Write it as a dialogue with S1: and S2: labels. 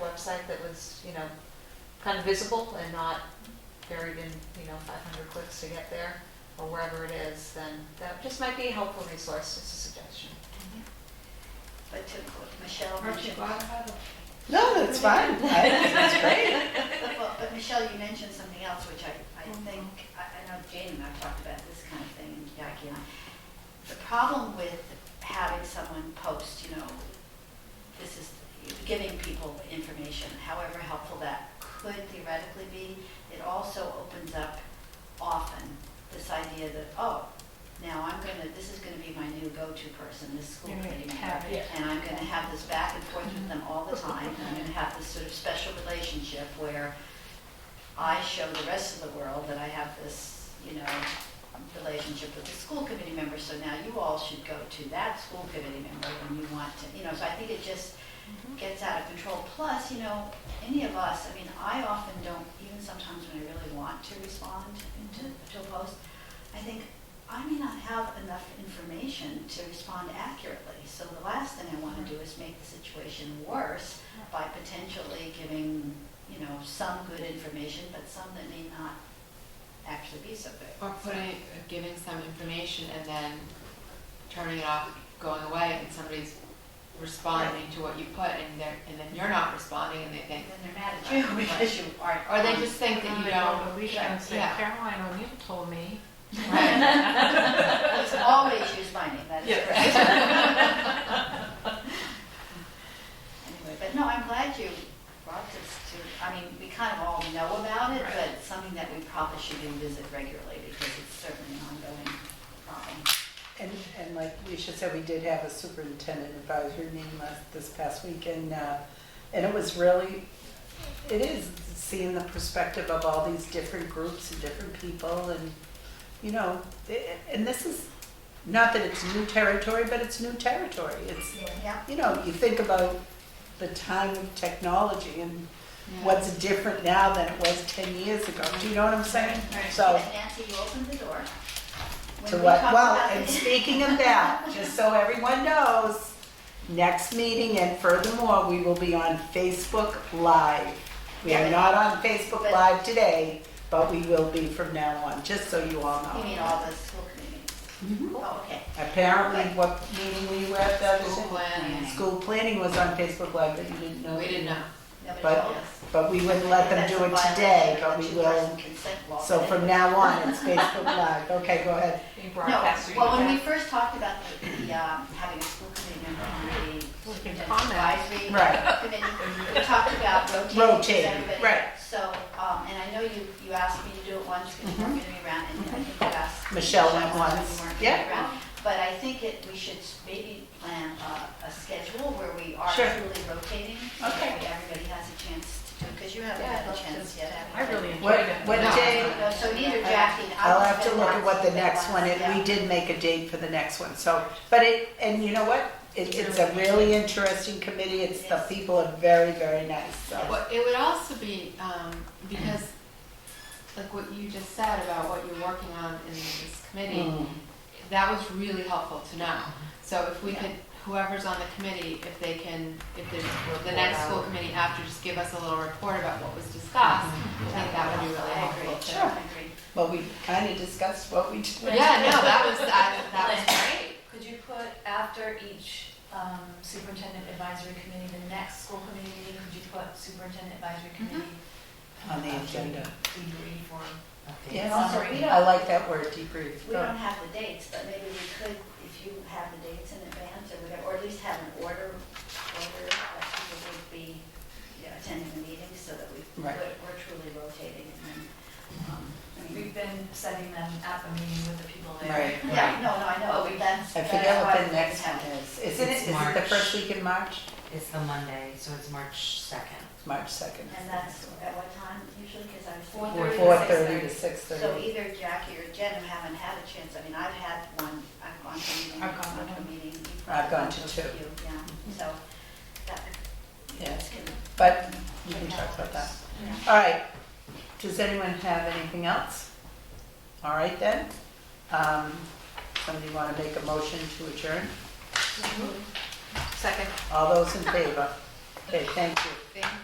S1: website that was, you know, kind of visible and not buried in, you know, five hundred clicks to get there, or wherever it is, then that just might be a helpful resource, just a suggestion.
S2: But to what Michelle
S3: Aren't you
S2: mentioned,
S3: glad I had a
S4: No, that's fine. I think that's great.
S2: well, but Michelle, you mentioned something else, which I, I
S3: Mhm.
S2: think, I, I know Jane and I've talked about this kind of thing, and Jackie and I. The problem with having someone post, you know, this is giving people information, however helpful that could theoretically be, it also opens up often this idea that, oh, now I'm gonna, this is gonna be my new go-to person, this school
S3: You're gonna
S2: committee member.
S3: have it.
S2: And I'm gonna have this back and forth with them all the time, and I'm gonna have this sort of special relationship where I show the rest of the world that I have this, you know, relationship with the school committee member, so now you all should go to that school committee member when you want to, you know, so I think it just gets out of control. Plus, you know, any of us, I mean, I often don't, even sometimes when I really want to respond to, to a post, I think, I may not have enough information to respond accurately. So the last thing I want to do is make the situation worse by potentially giving, you know, some good information, but some that may not actually be so good.
S3: Or putting, giving some information and then turning it off, going away, and somebody's responding to what you put, and they're, and then you're not responding, and they think,
S2: And then they're mad at you because you aren't.
S3: or they just think that you don't.
S5: Alicia and say,
S3: Yeah.
S5: Caroline O'Neill told me.
S3: Right.
S2: Let's always use my name, that is
S5: Yeah.
S2: correct. Anyway, but no, I'm glad you brought this to, I mean, we kind of all know about it, but it's something that we probably should revisit regularly because it's certainly an ongoing problem.
S4: And, and like Alicia said, we did have a superintendent advisory meeting last, this past week, and, uh, and it was really, it is seeing the perspective of all these different groups and different people, and, you know, i- and this is, not that it's new territory, but it's new territory. It's,
S2: Yeah.
S4: you know, you think about the time of technology and what's different now than it was ten years ago. Do you know what I'm saying?
S3: Right.
S4: So.
S2: Nancy, you opened the door. When
S4: To
S2: we
S4: what,
S2: talk
S4: well,
S2: about
S4: and
S2: the-
S4: speaking of that, just so everyone knows, next meeting and furthermore, we will be on Facebook Live. We are not on Facebook
S2: But-
S4: Live today, but we will be from now on, just so you all
S2: You
S4: know.
S2: mean all the school committees?
S4: Mhm.
S2: Oh, okay.
S4: Apparently, what meeting were you at the other
S3: School
S4: day?
S3: planning.
S4: School planning was on Facebook Live, but you didn't know.
S3: We didn't know.
S2: Nobody
S4: But-
S2: told us.
S4: But we wouldn't let them
S2: That's
S4: do
S2: a
S4: it
S2: violation
S4: today,
S2: of
S4: but
S2: the
S4: we will.
S2: two-person consent law.
S4: So from now on, it's Facebook Live. Okay, go ahead.
S5: Being
S2: No,
S5: broadcast.
S2: well, when we first talked about the, the, um, having a school committee member on the
S5: We can
S2: superintendent's
S5: comment.
S2: advisory
S4: Right.
S2: committee, we talked about rotating.
S4: Rotating,
S2: everybody.
S4: right.
S2: So, um, and I know you, you asked me to do it once because you weren't going to be around, and I think you asked.
S4: Mm-hmm. Michelle went
S2: Michelle
S4: once.
S2: You weren't
S4: Yeah.
S2: going to be around. But I think it, we should s- maybe plan a, a schedule where we are
S4: Sure.
S2: truly rotating. so that
S4: Okay.
S2: we- Everybody has a chance to do, because you haven't
S1: Yeah, I'd
S2: had a
S1: love to.
S2: chance yet. have
S5: I
S2: you?
S5: really enjoyed
S4: What-
S5: it.
S4: what
S5: No.
S4: day-
S2: No, so neither Jackie. and I
S4: I'll
S2: both
S4: have to
S2: been
S4: look at what the
S2: once,
S4: next one is.
S2: yeah.
S4: We did make a date for the next one, so, but it, and you know what? It, it's a really interesting committee. It's, the people are very, very nice, so.
S3: Well, it would also be, um, because, like what you just said about what you're working on in this committee,
S4: Mm.
S3: that was really helpful to know. So if we
S2: Mm-hmm. Yeah.
S3: could, whoever's on the committee, if they can, if there's the next school committee after, just give us a little report about what was discussed, I think that would be really
S2: Mm-hmm. I agree.
S3: helpful too.
S2: I agree.
S4: Well, we kind of discussed what we did.
S3: Yeah, no, that was, that, that was great.
S6: Could you put after each um, superintendent advisory committee, the next school committee meeting, could you put superintendent advisory
S4: Mm-hmm.
S6: committee?
S4: On the
S6: um,
S4: agenda.
S6: Debrief or,
S4: Yeah,
S6: Summary.
S4: I like that word, debrief.
S2: We don't have the dates, but maybe we could, if you have the dates in advance or whatever, or at least have an order, order that people would be you know, attending the meeting so that we,
S4: Right.
S2: we're we're truly rotating and then, um, I mean,
S6: we've been setting them at the meeting with the people there.
S4: Right.
S2: yeah, no, no, I know,
S6: But we-
S2: that's.
S4: I
S2: that's
S4: forget
S2: why
S4: what
S2: we
S4: the next
S2: have
S4: one
S2: it.
S4: is. Isn't it,
S7: It's
S4: is it the
S7: March.
S4: first week in March?
S7: It's the Monday, so it's March second.
S4: It's March second.
S2: And that's at what time usually, because I was.
S6: Four
S2: thinking-
S6: thirty to
S4: Four thirty to six
S2: So
S4: thirty.
S2: either Jackie or Jen who haven't had a chance, I mean, I've had one, I've gone to a meeting.
S6: I've gone to
S2: a
S6: one.
S2: meeting. you've
S4: I've gone to
S2: those
S4: two.
S2: of you, Yeah, so that,
S4: Yeah.
S2: that's good.
S4: But we can talk about that.
S2: Yeah.
S4: All right, does anyone have anything else? All right then, um, somebody want to make a motion to adjourn?
S1: Second.
S4: All those in favor? Okay, thank you.